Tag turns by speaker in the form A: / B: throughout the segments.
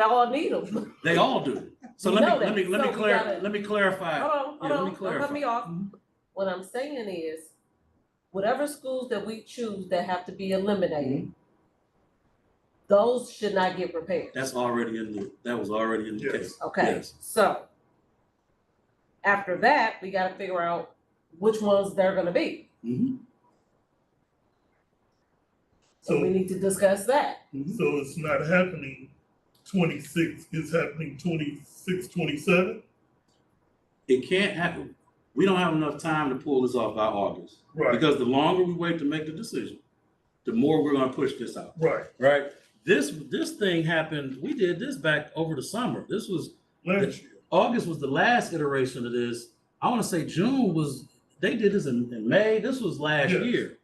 A: They all need them.
B: They all do. So
A: You
B: let
A: know
B: me, let
A: that.
B: me, let
A: So
B: me
A: we
B: clar,
A: gotta-
B: let me clarify.
A: Hold
B: Yeah,
A: on,
B: let me
A: hold on, don't cut me
B: clarify. Mm-hmm.
A: off. What I'm saying is, whatever schools that we choose that have to be eliminated,
B: Mm-hmm.
A: those should not get repaired,
B: That's already in the, that was already in the
C: Yes.
B: case.
A: okay?
B: Yes.
A: So, after that, we gotta figure out which ones they're gonna be.
B: Mhm.
A: So we
C: So,
A: need to discuss that.
B: Mm-hmm.
C: so it's not happening twenty-six, it's happening twenty-six, twenty-seven?
B: It can't happen. We don't have enough time to pull this off by August.
C: Right,
B: Because the longer we wait to make the decision, the more we're gonna push this out,
C: right.
B: right? This, this thing happened, we did this back over the summer. This was,
C: Last year,
B: August was the last iteration of this. I wanna say June was, they did this in, in May. This was last
C: Yes.
B: year.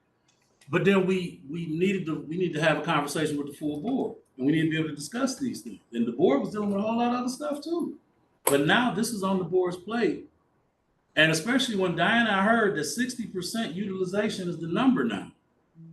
B: But then we, we needed to, we need to have a conversation with the full board and we need to be able to discuss these things. And the board was dealing with a whole lot of other stuff too. But now this is on the board's plate. And especially when Diana, I heard that sixty percent utilization is the number now.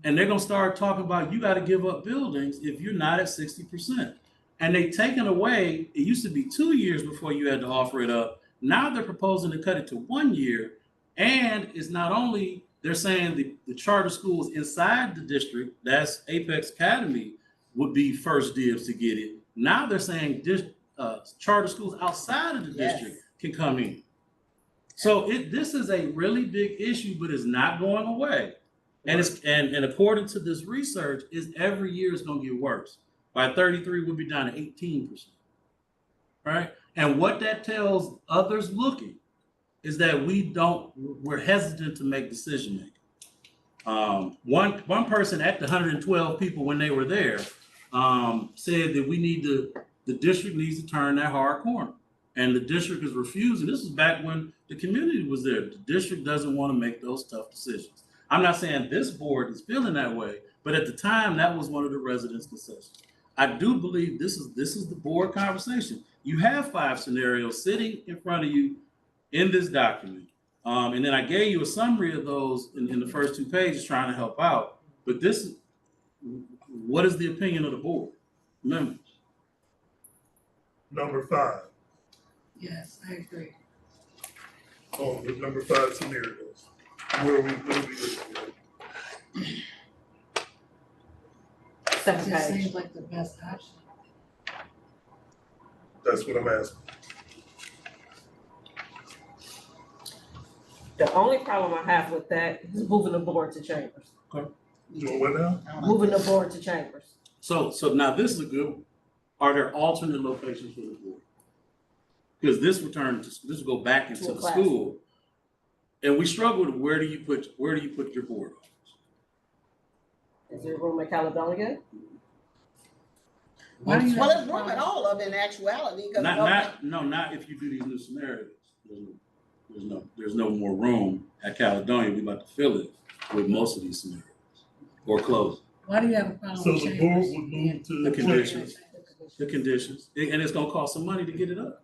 B: And they're gonna start talking about you gotta give up buildings if you're not at sixty percent. And they taken away, it used to be two years before you had to offer it up. Now they're proposing to cut it to one year. And it's not only, they're saying the, the charter schools inside the district, that's Apex Academy, would be first dibs to get it. Now they're saying dis, uh, charter schools outside of the
A: Yes.
B: district can come in. So it, this is a really big issue, but it's not going away. And it's, and, and according to this research, is every year it's gonna get worse. By thirty-three, we'll be down to eighteen percent. Right? And what that tells others looking is that we don't, we're hesitant to make decision making. Um, one, one person at the hundred and twelve people when they were there, um, said that we need to, the district needs to turn that hard corner. And the district is refusing, this is back when the community was there, the district doesn't want to make those tough decisions. I'm not saying this board is feeling that way, but at the time, that was one of the residents' concessions. I do believe this is, this is the board conversation. You have five scenarios sitting in front of you in this document. Um, and then I gave you a summary of those in, in the first two pages trying to help out. But this, what is the opinion of the board? Remember,
C: number five,
D: Yes, I agree.
C: on um, the number five scenarios, where we, where we looking at.
D: It
A: Second
D: just
A: page.
D: seems like the best option.
C: That's what I'm asking.
A: The only problem I have with that is moving the board to chambers,
C: Doing what now?
A: moving the board to chambers.
B: so, so now this is a good, one. are there alternate locations for the board? Because this return, to- this will go back
A: To
B: into
A: a
B: the
A: classroom.
B: school. And we struggled, where do you put, where do you put your board?
A: Is there room at Caledonia?
D: Why do you
E: Well,
D: have
E: it's
D: a
E: room at
D: problem?
E: all of it in actuality, because.
B: Not, not, no, not if you do these new scenarios. There's no, there's no, there's no more room at Caledonia. We about to fill it with most of these scenarios or close
D: Why do you have a problem
C: So
D: with
C: the board
D: chambers?
C: would move to.
B: The
C: chambers.
B: conditions. the conditions. And and it's gonna cost some money to get it up.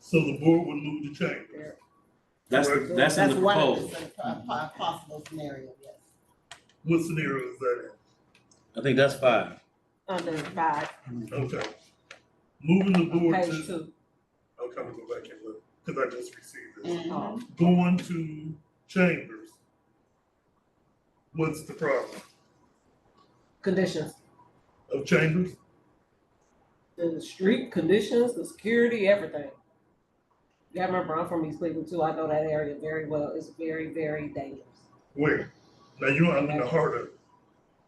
C: So the board would move to chambers.
B: That's, the- that's in the
E: one of
B: proposal.
E: the po- po- Possible scenario, yes.
C: What scenario is that
B: I think that's five.
A: Under five,
C: in?
B: Mm-hmm.
C: Okay. Moving the board to,
A: page two.
C: I'll come and go back and look, because I just received this.
E: Mm-hmm.
A: Oh,
C: Going to chambers. What's the problem
A: Conditions,
C: of chambers?
A: the street conditions, the security, everything. You gotta remember, I'm from East Cleveland too, I know that area very well, it's very, very dangerous.
C: Where? Now you, I'm in the heart of it.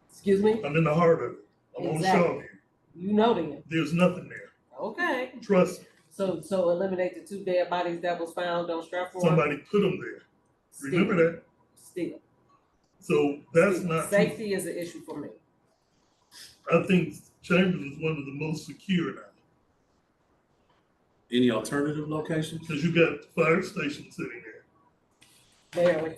A: Excuse me,
C: I'm in the heart of it. I'm on
A: Exactly.
C: Shawview.
A: you know them,
C: There's nothing there.
A: okay,
C: Trust me.
A: so, so eliminate the two dead bodies that was found on Stratford.
C: Somebody put them there. Remember that?
A: Still,
C: So that's
A: still.
C: not, I
A: safety is an issue for me.
C: think chambers is one of the most secure now.
B: Any alternative locations?
C: Cause you got the fire station sitting there.
A: Barely.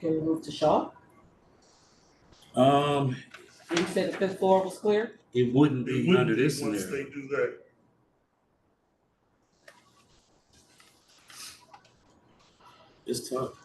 A: Can we move to Shaw?
B: Um,
A: You said the fifth floor was clear?
B: it wouldn't
C: It
B: be under
C: wouldn't be
B: this
C: once
B: scenario.
C: they do that.
B: It's tough.